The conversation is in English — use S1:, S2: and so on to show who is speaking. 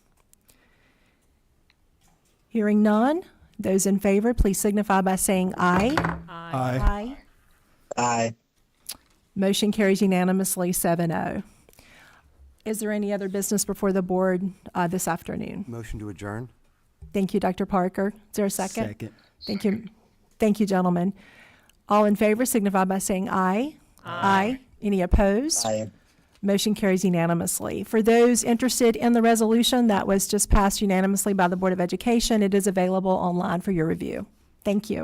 S1: Hearing none, those in favor, please signify by saying aye.
S2: Aye.
S1: Aye.
S3: Aye.
S1: Motion carries unanimously, 7-0. Is there any other business before the board uh, this afternoon?
S4: Motion to adjourn?
S1: Thank you, Dr. Parker. Is there a second? Thank you. Thank you, gentlemen. All in favor signify by saying aye. Aye. Any opposed?
S3: Aye.
S1: Motion carries unanimously. For those interested in the resolution that was just passed unanimously by the Board of Education, it is available online for your review. Thank you.